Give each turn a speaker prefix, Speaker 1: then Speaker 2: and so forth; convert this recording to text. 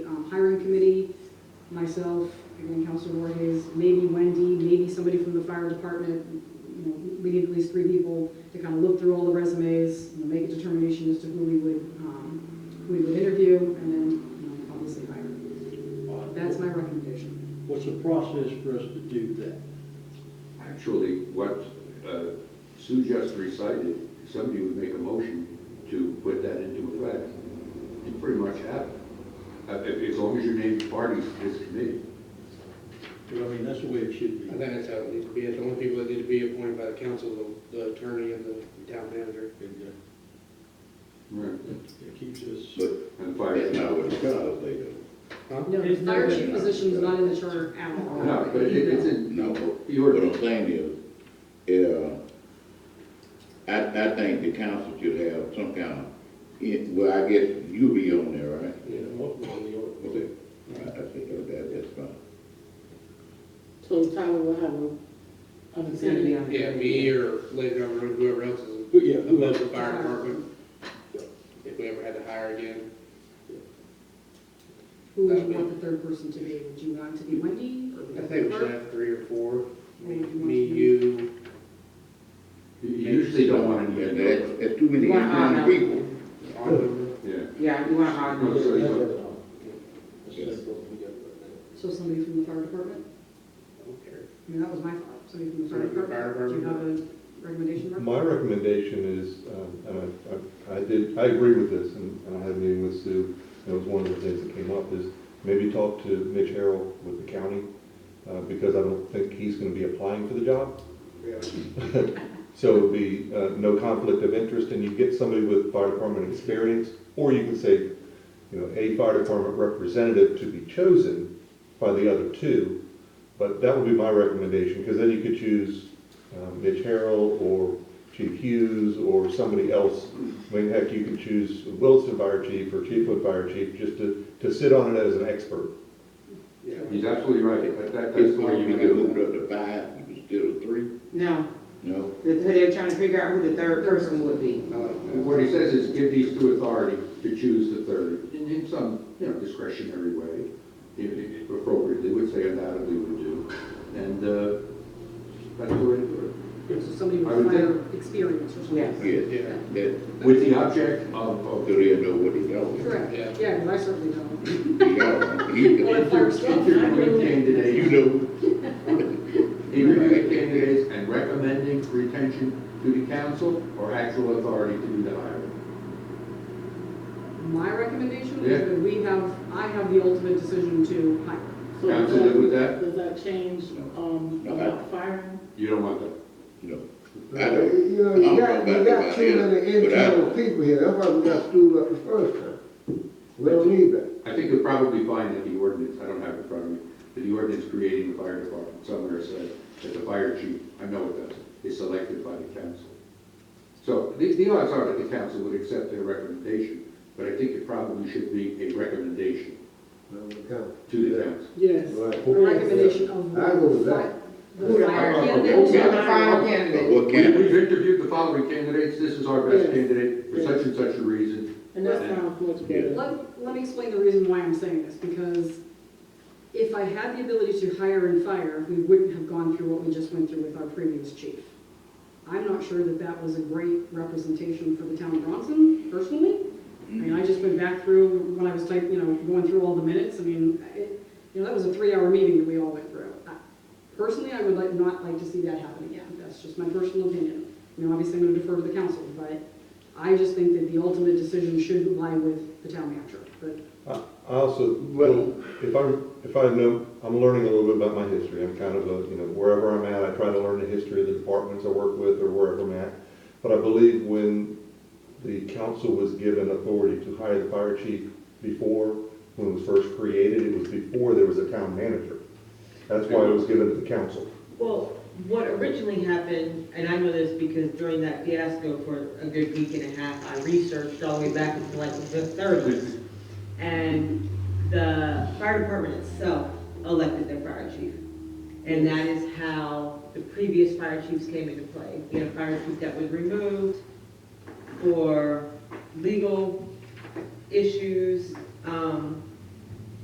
Speaker 1: um, hiring committee, myself, again, Counselor Voorhees, maybe Wendy, maybe somebody from the fire department. You know, we need at least three people to kind of look through all the resumes, you know, make a determination as to who we would, um, who we would interview, and then, you know, obviously hire. That's my recommendation.
Speaker 2: What's the process for us to do that?
Speaker 3: Actually, what uh, Sue just recited, somebody would make a motion to put that into effect. You pretty much have it, Uh, if- as long as you name the parties to this committee.
Speaker 2: Because I mean, that's the way it should
Speaker 4: I
Speaker 2: be. uh,
Speaker 4: think that's how it needs to be. The only people that need to be appointed by the council, the- the attorney and the town manager.
Speaker 3: Right.
Speaker 2: It keeps us, uh,
Speaker 5: But
Speaker 3: And fire.
Speaker 5: that's not what it does, they do.
Speaker 4: Huh?
Speaker 1: No, the
Speaker 2: There's no
Speaker 1: fire
Speaker 2: way
Speaker 1: chief
Speaker 5: not.
Speaker 1: position is not in the charter at all.
Speaker 3: No, but it- it's in,
Speaker 5: No,
Speaker 3: You're-
Speaker 5: what I'm saying is, yeah, I, I think the council should have some kind of, yeah, well, I guess you'll be on there, right?
Speaker 4: Yeah, most of them, you know.
Speaker 5: Okay, All right, I think that, that's fine.
Speaker 6: So Tyler will have a, an executive.
Speaker 4: Yeah, me or Lady Governor, whoever else is
Speaker 2: Who- yeah, who
Speaker 4: above
Speaker 2: else?
Speaker 4: the fire department. If we ever had to hire again,
Speaker 1: Who would you want the third person to be? Would you want it to be Wendy? or would
Speaker 4: I
Speaker 1: you
Speaker 4: think we
Speaker 1: want
Speaker 4: should have three or four. Me,
Speaker 1: Maybe one.
Speaker 4: me, you,
Speaker 3: you usually don't want
Speaker 7: Mm-hmm.
Speaker 3: to get
Speaker 5: That's,
Speaker 3: that.
Speaker 5: that's too many
Speaker 6: You want all
Speaker 5: young
Speaker 6: of
Speaker 5: people.
Speaker 6: them.
Speaker 4: Arnold.
Speaker 3: Yeah.
Speaker 6: Yeah, you want all
Speaker 3: No,
Speaker 6: of them.
Speaker 3: so you don't-
Speaker 1: So somebody from the fire department?
Speaker 4: I don't care.
Speaker 1: I mean, that was my thought, somebody from the fire
Speaker 4: Somebody from the fire
Speaker 1: department. Do you have a recommendation, Mark?
Speaker 8: My recommendation is, um, and I- I, I did, I agree with this, and and I had a meeting with Sue, and it was one of the things that came up, is maybe talk to Mitch Harrell with the county, uh, because I don't think he's gonna be applying for the job. So it would be, uh, no conflict of interest, and you get somebody with fire department experience, or you can say, you know, a fire department representative to be chosen by the other two, but that would be my recommendation, because then you could choose um, Mitch Harrell or Chief Hughes or somebody else. I mean, heck, you can choose Wilson Fire Chief or Chiefwood Fire Chief just to, to sit on it as an expert.
Speaker 4: Yeah.
Speaker 3: He's absolutely right, but that, that's
Speaker 5: If
Speaker 3: the way
Speaker 5: you
Speaker 3: you
Speaker 5: get
Speaker 3: do
Speaker 5: moved
Speaker 3: it.
Speaker 5: up to five, you can still three,
Speaker 6: No,
Speaker 5: no?
Speaker 6: they're- they're trying to figure out who the third person would be.
Speaker 4: I like that.
Speaker 3: What he says is give these two authority to choose the third, in, in some, you know, discretionary way, if- if appropriately, would say undoubtedly would do. And, uh, that's the way to do
Speaker 1: So somebody
Speaker 3: I
Speaker 1: with
Speaker 3: would
Speaker 1: fire experience or something?
Speaker 6: Yes.
Speaker 5: Yes,
Speaker 4: Yeah.
Speaker 5: that,
Speaker 3: it. With the object of,
Speaker 5: so
Speaker 3: of
Speaker 5: they'll know what they know.
Speaker 1: Correct,
Speaker 4: Yeah.
Speaker 1: yeah, because I certainly don't.
Speaker 5: Yeah, he-
Speaker 1: Well, if I was-
Speaker 3: interviewing
Speaker 5: You
Speaker 3: candidates,
Speaker 5: know,
Speaker 3: interviewing candidates and recommending retention to the council or actual authority to do the hiring.
Speaker 1: My recommendation
Speaker 3: Yeah.
Speaker 1: is that we have, I have the ultimate decision to hire.
Speaker 6: So
Speaker 3: Council good with that?
Speaker 6: Does that change, um,
Speaker 5: No.
Speaker 6: about firing?
Speaker 3: You don't want that.
Speaker 5: no. I don't.
Speaker 7: You know, you got, you got too many
Speaker 5: But I-
Speaker 7: internal people here, that's why we got screwed up the first time. We don't need that.
Speaker 3: I think you'll probably find that the ordinance, I don't have it in front of me, but the ordinance creating the fire department somewhere said that the fire chief, I know it does, is selected by the council. So the, the odds are that the council would accept their recommendation, but I think it probably should be a recommendation
Speaker 7: No, we can't.
Speaker 3: to the council.
Speaker 6: Yes.
Speaker 7: Right.
Speaker 1: Recommendation of.
Speaker 7: I go with that.
Speaker 1: The fire
Speaker 3: Yeah.
Speaker 1: candidate.
Speaker 6: Yeah, the final candidate.
Speaker 5: What
Speaker 3: We-
Speaker 5: can,
Speaker 3: We've interviewed the following candidates, this is our best
Speaker 6: Yes.
Speaker 3: candidate for
Speaker 6: Yes.
Speaker 3: such and such a reason.
Speaker 6: And that sounds much better.
Speaker 1: Let, let me explain the reason why I'm saying this, because if I had the ability to hire and fire, we wouldn't have gone through what we just went through with our previous chief. I'm not sure that that was a great representation for the town of Bronson, personally. I mean, I just went back through, when I was typing, you know, going through all the minutes, I mean, it, you know, that was a three-hour meeting that we all went through. I- Personally, I would like, not like to see that happen again, that's just my personal opinion. You know, obviously, I'm gonna defer to the council, but I just think that the ultimate decision should lie with the town manager, but
Speaker 8: I I also, well, if I'm, if I know, I'm learning a little bit about my history, I'm kind of a, you know, wherever I'm at, I try to learn the history of the departments I work with or wherever I'm at. But I believe when the council was given authority to hire the fire chief before, when it was first created, it was before there was a town manager. That's why it was given to the council.
Speaker 9: Well, what originally happened, and I know this because during that fiasco for a good week and a half, I researched all the way back into like the thirties. And the fire department itself elected their fire chief. And that is how the previous fire chiefs came into play. We had a fire chief that was removed for legal issues, um,